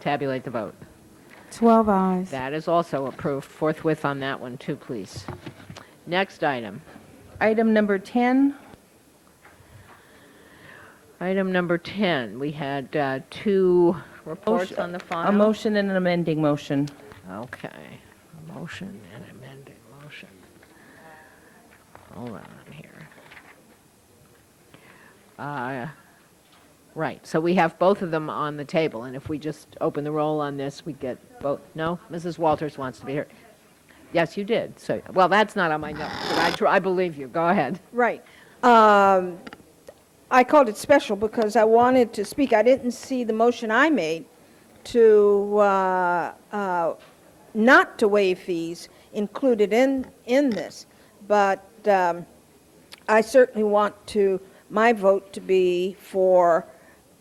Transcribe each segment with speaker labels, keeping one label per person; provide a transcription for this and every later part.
Speaker 1: Tabulate the vote.
Speaker 2: 12 eyes.
Speaker 1: That is also approved. Forthwith on that one, too, please. Next item.
Speaker 3: Item number 10,
Speaker 1: Item number 10, we had uh, two reports
Speaker 3: Motion-
Speaker 1: on the file.
Speaker 3: a motion and an amending motion.
Speaker 1: Okay, a motion and amended motion. Hold on here. Uh, Right, so we have both of them on the table, and if we just open the roll on this, we get both, no? Mrs. Walters wants to be here. Yes, you did, so, well, that's not on my notes, but I tr- I believe you, go ahead.
Speaker 4: Right. Um, I called it special because I wanted to speak. I didn't see the motion I made to, uh, uh, not to waive fees included in, in this. But um, I certainly want to, my vote to be for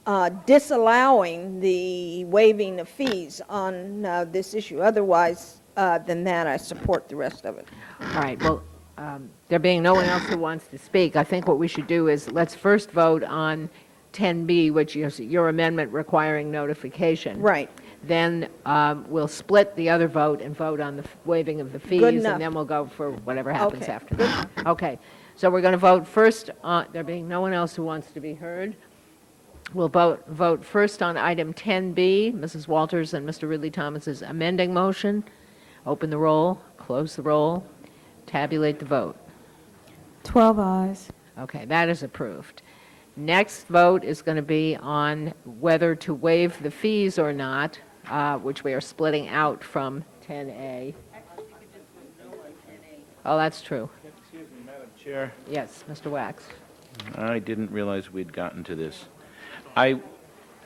Speaker 4: uh, disallowing the waiving of fees on uh, this issue. Otherwise uh, than that, I support the rest of it.
Speaker 1: All right, well, um, there being no one else who wants to speak, I think what we should do is, let's first vote on 10B, which is your amendment requiring notification.
Speaker 4: Right.
Speaker 1: Then um, we'll split the other vote and vote on the f- waiving of the fees.
Speaker 4: enough.
Speaker 1: And then we'll go for whatever happens
Speaker 4: Okay.
Speaker 1: after that. Okay, so we're going to vote first, on- there being no one else who wants to be heard, we'll vote, vote first on item 10B, Mrs. Walters and Mr. Ridley Thomas's amending motion. Open the roll, close the roll, tabulate the vote.
Speaker 2: 12 eyes.
Speaker 1: Okay, that is approved. Next vote is going to be on whether to waive the fees or not, uh, which we are splitting out from 10A. Oh, that's true.
Speaker 5: Excuse me, Madam Chair.
Speaker 1: Yes, Mr. Wax.
Speaker 5: I didn't realize we'd gotten to this. I,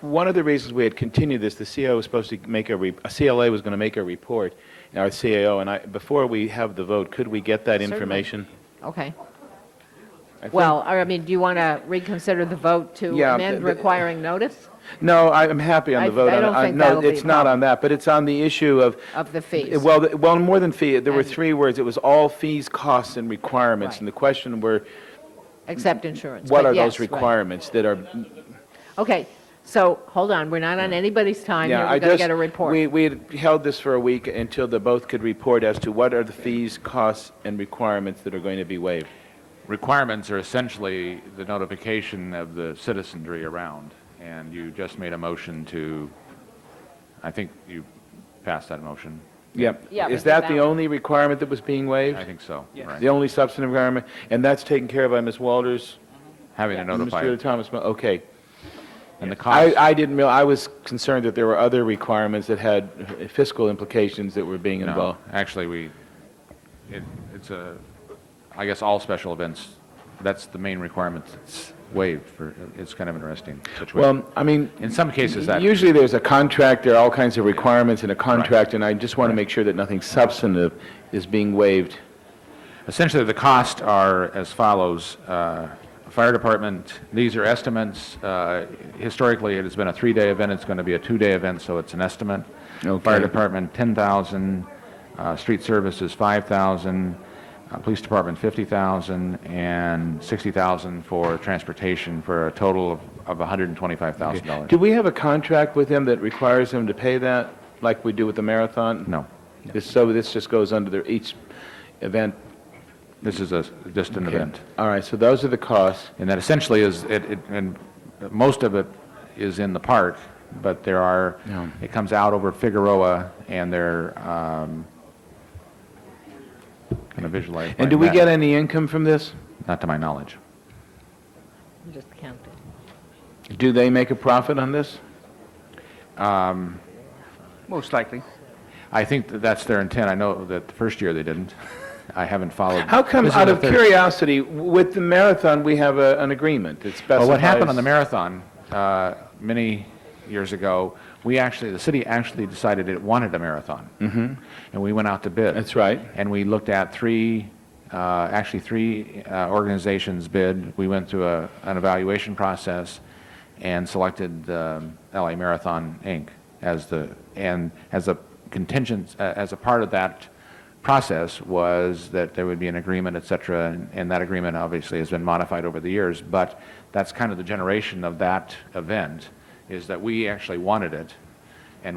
Speaker 5: one of the reasons we had continued this, the CAO was supposed to make a, re- a CLA was going to make a report, our CAO, and I, before we have the vote, could we get that
Speaker 1: Certainly.
Speaker 5: information?
Speaker 1: Okay.
Speaker 5: I think-
Speaker 1: Well, I mean, do you want to reconsider the vote to
Speaker 5: Yeah,
Speaker 1: amend
Speaker 5: the- the-
Speaker 1: requiring notice
Speaker 5: No, I- I'm happy on
Speaker 1: I-
Speaker 5: the vote.
Speaker 1: I
Speaker 5: on-
Speaker 1: don't
Speaker 5: on-
Speaker 1: think that'll be
Speaker 5: No,
Speaker 1: a
Speaker 5: it's not
Speaker 1: problem.
Speaker 5: on that, but it's on the issue of,
Speaker 1: of the fees?
Speaker 5: well, the- well, more than fee, there were
Speaker 1: And-
Speaker 5: three words. It was all fees, costs, and requirements.
Speaker 1: Right.
Speaker 5: And the question were,
Speaker 1: Except insurance.
Speaker 5: what
Speaker 1: but
Speaker 5: are
Speaker 1: yes,
Speaker 5: those
Speaker 1: right.
Speaker 5: requirements that are
Speaker 1: Okay, so, hold on, we're not on anybody's time here.
Speaker 5: Yeah, I
Speaker 1: We've got to
Speaker 5: just,
Speaker 1: get a report.
Speaker 5: we, we had held this for a week until the both could report as to what are the fees, costs, and requirements that are going to be waived.
Speaker 6: requirements are essentially the notification of the citizenry around, and you just made a motion to, I think you passed that motion.
Speaker 5: Yep.
Speaker 1: Yeah,
Speaker 5: Is
Speaker 1: but
Speaker 5: that the
Speaker 1: that-
Speaker 5: only requirement that was being waived?
Speaker 6: I think so,
Speaker 5: The
Speaker 6: right?
Speaker 5: only substantive requirement, and that's taken care of by Ms. Walters?
Speaker 6: Having to
Speaker 5: and
Speaker 6: notify,
Speaker 5: Mr. Thomas, okay.
Speaker 6: and the cost,
Speaker 5: I, I didn't, real- I was concerned that there were other requirements that had fiscal implications that were being
Speaker 6: no,
Speaker 5: involved.
Speaker 6: actually, we, it, it's a, I guess all special events, that's the main requirement that's waived for, it's kind of interesting situation.
Speaker 5: Well, I mean,
Speaker 6: In some cases, that,
Speaker 5: Usually there's a contract, there are all kinds of requirements in a contract, and I just want to make sure that nothing substantive is being waived.
Speaker 6: Essentially, the costs are as follows. Uh, Fire department, these are estimates. Uh, Historically, it has been a three-day event, it's going to be a two-day event, so it's an estimate.
Speaker 5: Okay.
Speaker 6: Fire department, 10,000. Uh, Street services, 5,000. Uh, Police department, 50,000. And 60,000 for transportation, for a total of of $125,000.
Speaker 5: Do we have a contract with them that requires them to pay that, like we do with the marathon?
Speaker 6: No.
Speaker 5: This- So this just goes under their, each event?
Speaker 6: This is a- just an event.
Speaker 5: All right, so those are the costs.
Speaker 6: And that essentially is, it, it- and most of it is in the park, but there are,
Speaker 5: Yeah.
Speaker 6: it comes out over Figueroa, and there, um, kind of visualize.
Speaker 5: And
Speaker 6: my
Speaker 5: do we
Speaker 6: map.
Speaker 5: get any income from this?
Speaker 6: Not to my knowledge.
Speaker 1: I'm Just counting.
Speaker 5: Do they make a profit on this?
Speaker 6: Um,
Speaker 7: Most likely.
Speaker 6: I think that that's their intent. I know that the first year they didn't. I haven't followed.
Speaker 5: How come,
Speaker 6: this is
Speaker 5: out
Speaker 6: the
Speaker 5: of
Speaker 6: third-
Speaker 5: curiosity, with the marathon, we have a- an agreement that specifies?
Speaker 6: Well, what happened on the marathon uh, many years ago, we actually, the city actually decided it wanted a marathon. Mm-hmm. And we went out to bid.
Speaker 5: That's right.
Speaker 6: And we looked at three, uh, actually three uh, organizations bid. We went through a, an evaluation process and selected um, LA Marathon Inc. as the and as a contingent uh, as a part of that process was that there would be an agreement, et cetera, and, and that agreement obviously has been modified over the years. But that's kind of the generation of that event is that we actually wanted it